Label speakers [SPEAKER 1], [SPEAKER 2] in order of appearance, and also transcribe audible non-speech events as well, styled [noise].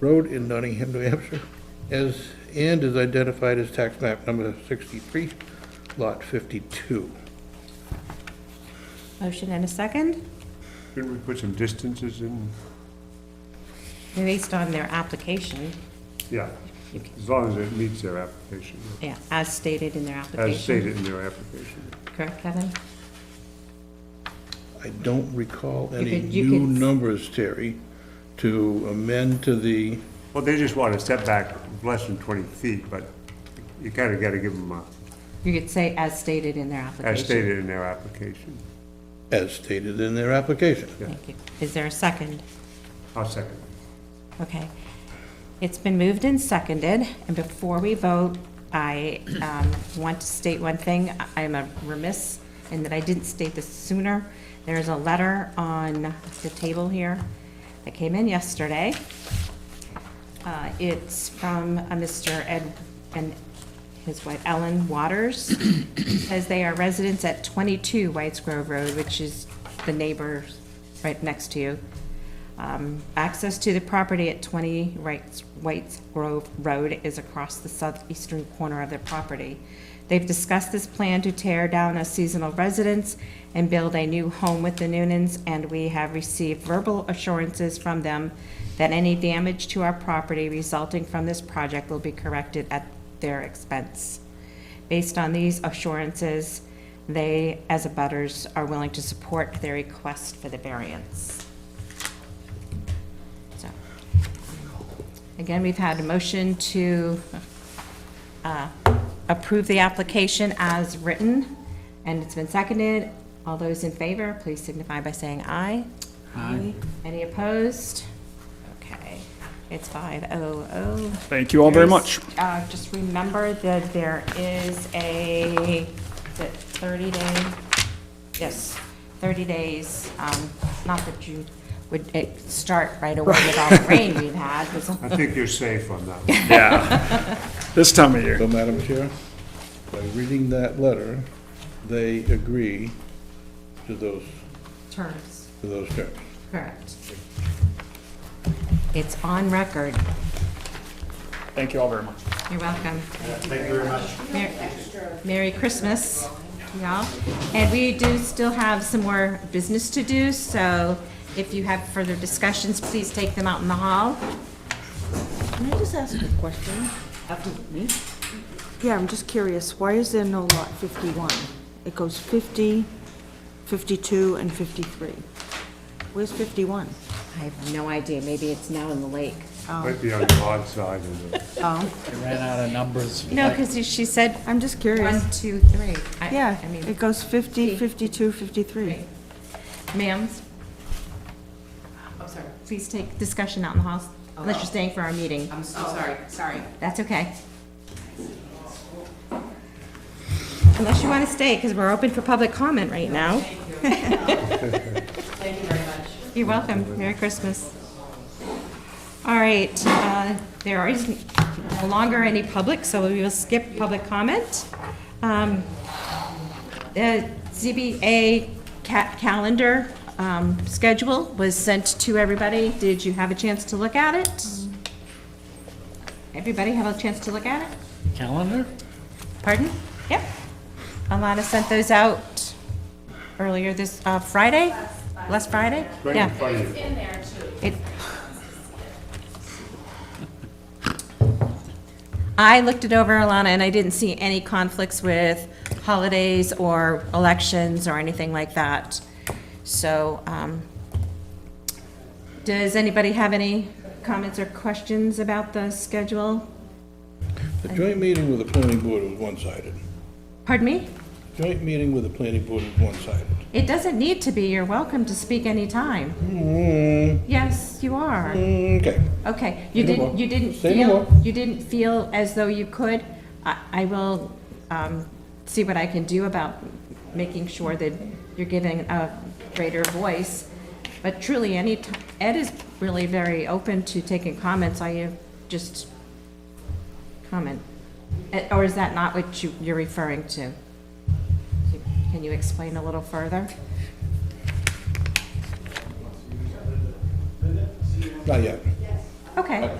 [SPEAKER 1] Road in Nottingham, New Hampshire, as, and is identified as tax map number 63, lot 52.
[SPEAKER 2] Motion and a second,
[SPEAKER 3] Couldn't we put some distances in?
[SPEAKER 2] based on their application,
[SPEAKER 3] Yeah, as long as it meets their application,
[SPEAKER 2] yeah, as stated in their application.
[SPEAKER 3] as stated in their application.
[SPEAKER 2] Correct, Kevin?
[SPEAKER 1] I don't recall any
[SPEAKER 2] could- you
[SPEAKER 1] new
[SPEAKER 2] could-
[SPEAKER 1] numbers, Terry, to amend to the,
[SPEAKER 3] Well, they just want a setback of less than 20 feet, but you kind of got to give them a,
[SPEAKER 2] You could say as stated in their application.
[SPEAKER 3] as stated in their application.
[SPEAKER 1] as stated in their application.
[SPEAKER 2] Thank you. Is there a second?
[SPEAKER 3] I'll second.
[SPEAKER 2] Okay. It's been moved and seconded, and before we vote, I um, want to state one thing. I- I'm a remiss in that I didn't state this sooner. There is a letter on the table here that came in yesterday. Uh, It's from a Mr. Ed, and his wife Ellen Waters. Says they are residents at 22 Whites Grove Road, which is the neighbors right next to you. Um, Access to the property at 20 Whites Whites Grove Road is across the southeastern corner of their property. They've discussed this plan to tear down a seasonal residence and build a new home with the Noonans, and we have received verbal assurances from them that any damage to our property resulting from this project will be corrected at their expense. Based on these assurances, they, as abutters, are willing to support their request for the variance. So, Again, we've had a motion to uh, approve the application as written, and it's been seconded. All those in favor, please signify by saying aye. Aye. Any opposed? Okay, it's five oh oh.
[SPEAKER 4] Thank you all very
[SPEAKER 2] There's-
[SPEAKER 4] much.
[SPEAKER 2] uh, Just remember that there is a, is it 30 day? Yes, 30 days, um, not that you would eh, start right away with all
[SPEAKER 4] [laughs]
[SPEAKER 2] the rain we've had, 'cause
[SPEAKER 3] I think you're safe on that one.
[SPEAKER 4] Yeah. [laughs] This time of year.
[SPEAKER 1] So, Madam Chair, by reading that letter, they agree to those,
[SPEAKER 2] terms.
[SPEAKER 1] to those terms.
[SPEAKER 2] Correct. It's on record.
[SPEAKER 4] Thank you all very much.
[SPEAKER 2] You're welcome. Thank you very much. Merry Christmas, y'all. And we do still have some more business to do, so if you have further discussions, please take them out in the hall.
[SPEAKER 5] Can I just ask a question?
[SPEAKER 2] Absolutely.
[SPEAKER 5] Yeah, I'm just curious, why is there no lot 51? It goes 50, 52, and 53. Where's 51?
[SPEAKER 2] I have no idea, maybe it's now in the lake.
[SPEAKER 3] Might be on the odd side of the,
[SPEAKER 6] Ran out of numbers.
[SPEAKER 2] No, because she said
[SPEAKER 5] I'm just
[SPEAKER 2] one,
[SPEAKER 5] curious.
[SPEAKER 2] two, three. I-
[SPEAKER 5] Yeah,
[SPEAKER 2] I mean,
[SPEAKER 5] it goes 50, 52,
[SPEAKER 2] three.
[SPEAKER 5] 53.
[SPEAKER 2] Ma'am? I'm sorry. Please take discussion out in the hall, unless you're staying for our meeting.
[SPEAKER 7] Oh, I'm so sorry, sorry.
[SPEAKER 2] That's okay. Unless you want to stay, because we're open for public comment right now. [laughs]
[SPEAKER 7] Thank you very much.
[SPEAKER 2] You're welcome. Merry Christmas. All right, uh, there is no longer any public, so we will skip public comment. Um, The ZBA ca- calendar um, schedule was sent to everybody. Did you have a chance to look at it? Everybody have a chance to look at it?
[SPEAKER 6] Calendar?
[SPEAKER 2] Pardon? Yep. Alana sent those out earlier this, uh, Friday? Last Friday?
[SPEAKER 3] right in
[SPEAKER 2] Yeah.
[SPEAKER 3] front of you.
[SPEAKER 2] It- I looked it over, Alana, and I didn't see any conflicts with holidays or elections or anything like that. So, um, does anybody have any comments or questions about the schedule?
[SPEAKER 1] The joint meeting with the planning board was one-sided.
[SPEAKER 2] Pardon me?
[SPEAKER 1] Joint meeting with the planning board was one-sided.
[SPEAKER 2] It doesn't need to be. You're welcome to speak anytime.
[SPEAKER 1] Mm,
[SPEAKER 2] Yes, you are.
[SPEAKER 1] Okay.
[SPEAKER 2] Okay, you
[SPEAKER 1] Say no more.
[SPEAKER 2] didn't, you didn't
[SPEAKER 1] Say no
[SPEAKER 2] feel,
[SPEAKER 1] more.
[SPEAKER 2] you didn't feel as though you could. I, I will, um, see what I can do about making sure that you're giving a greater voice. But truly, any, t- Ed is really very open to taking comments. I uh, just comment. Eh, Or is that not what you, you're referring to? Can you explain a little further?
[SPEAKER 1] Not yet. Uh,
[SPEAKER 2] Okay.